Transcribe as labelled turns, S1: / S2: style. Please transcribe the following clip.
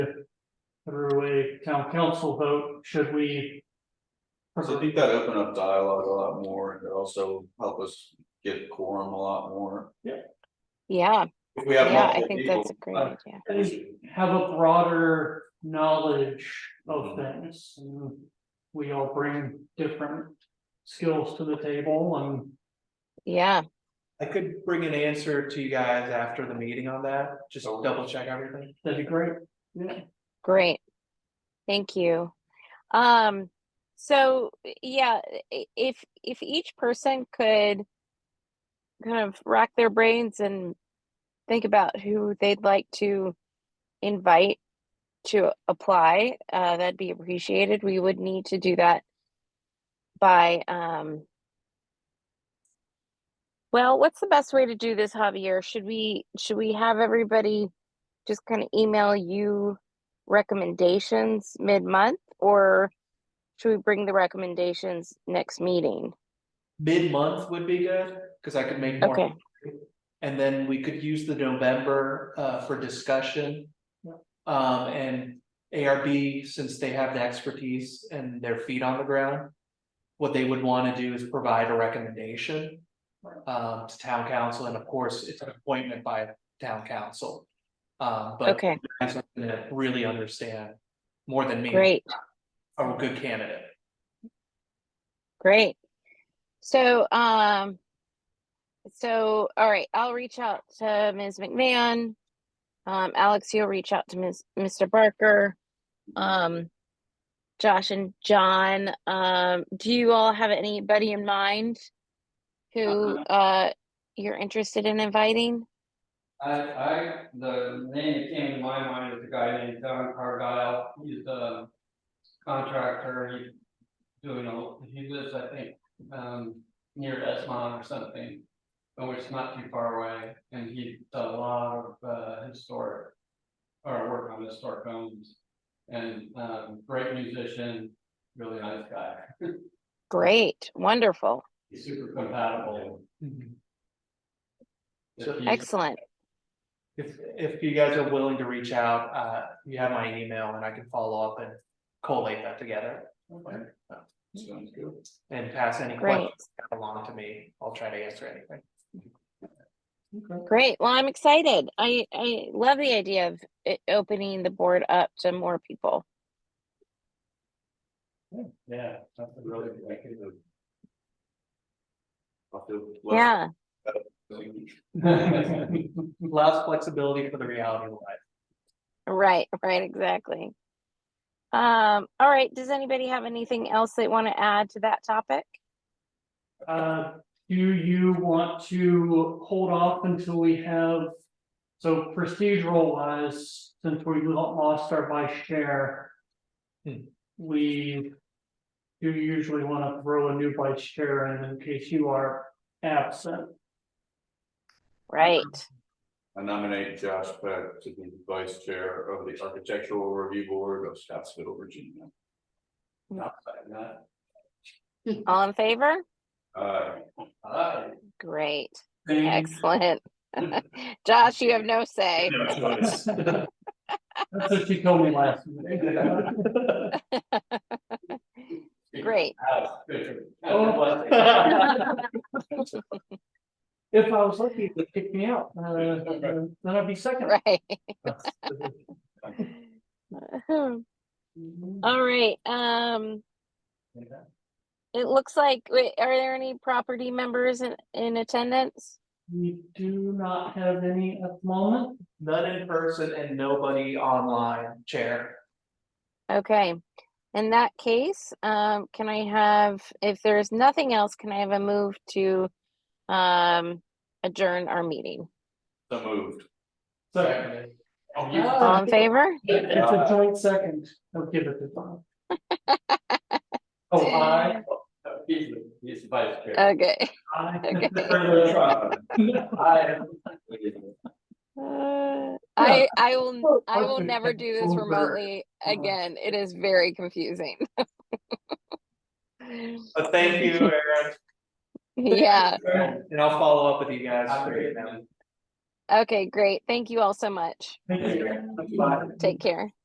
S1: through a town council vote, should we?
S2: So I think that opened up dialogue a lot more, and it also helped us get quorum a lot more.
S3: Yeah,
S2: If we have
S3: yeah, I
S2: multiple
S3: think that's
S2: people,
S3: a great
S1: uh,
S3: idea.
S1: I think have a broader knowledge of things. and We all bring different skills to the table and
S3: Yeah,
S4: I could bring an answer to you guys after the meeting on that, just
S2: Sure.
S4: double check everything.
S1: that'd be great. Yeah.
S3: great. Thank you. Um, so yeah, i- if if each person could kind of rack their brains and think about who they'd like to invite to apply, uh, that'd be appreciated. We would need to do that by um well, what's the best way to do this, Javier? Should we should we have everybody just kind of email you recommendations mid-month or should we bring the recommendations next meeting?
S4: Mid-month would be good, cause I could make
S3: Okay.
S4: more. And then we could use the November uh for discussion.
S1: Yeah.
S4: Um, and ARB, since they have the expertise and their feet on the ground. What they would wanna do is provide a recommendation. Um, to town council, and of course, it's an appointment by town council. Um, but
S3: Okay,
S4: guys are gonna really understand more than me.
S3: great,
S4: Are a good candidate.
S3: great. So, um, so, all right, I'll reach out to Ms. McMahon. Um, Alex, you'll reach out to Ms., Mr. Barker. Um, Josh and John, um, do you all have anybody in mind? Who, uh, you're interested in inviting?
S5: I, I, the name that came to my mind is a guy named Don Cargyle, he's a contractor, he's doing, a- he lives, I think, um, near Esmond or something. But it's not too far away, and he's done a lot of, uh, historic, or work on historic homes. And, um, great musician, really nice guy,
S3: Great, wonderful.
S5: he's super compatible.
S4: Mm-hmm.
S5: If
S4: So-
S5: he's-
S3: Excellent.
S4: If, if you guys are willing to reach out, uh, you have my email and I can follow up and collate that together
S2: sounds good.
S4: and pass any
S3: Great.
S4: questions along to me. I'll try to answer anything.
S3: Great. Well, I'm excited. I, I love the idea of it opening the board up to more people.
S5: Yeah, that's a really
S2: I can do. I'll do less-
S3: Yeah,
S4: Allows flexibility for the reality of life.
S3: right, right, exactly. Um, all right, does anybody have anything else they want to add to that topic?
S1: Uh, do you want to hold off until we have? So procedural wise, since we lo- lost our vice chair.
S4: Hmm.
S1: We. Do usually want to throw a new vice chair in in case you are absent.
S3: Right.
S2: I nominate Josh Peck to be vice chair of the Architectural Review Board of Scottsville, Virginia.
S3: All in favor?
S2: Uh,
S5: Hi.
S3: Great.
S1: Any-
S3: Excellent. Josh, you have no say.
S1: That's what she told me last week.
S3: Great.
S1: If I was lucky, it would kick me out, uh, then I'd be second.
S3: Right. All
S1: Mm-hmm.
S3: right, um. It looks like, wait, are there any property members in, in attendance?
S1: We do not have any at the moment.
S4: None in person and nobody online, Chair.
S3: Okay, in that case, um, can I have, if there's nothing else, can I have a move to um adjourn our meeting?
S2: so moved.
S1: So Uh,
S5: Oh,
S3: All in favor?
S1: it's a joint second. I'll give it to Bob. Oh, I,
S5: He's, the- he's the vice chair.
S3: Okay.
S1: I.
S5: I-
S3: Uh, I, I will, I will
S1: Oh, Okay,
S3: never do this
S1: over.
S3: remotely
S1: Uh-huh.
S3: again. It is very confusing.
S4: But thank you, Aaron.
S3: Yeah,
S4: And I'll follow up with you guys.
S5: I'm
S4: through
S5: great,
S4: email.
S5: man.
S3: okay, great. Thank you all so much.
S1: Thank you.
S3: Take care.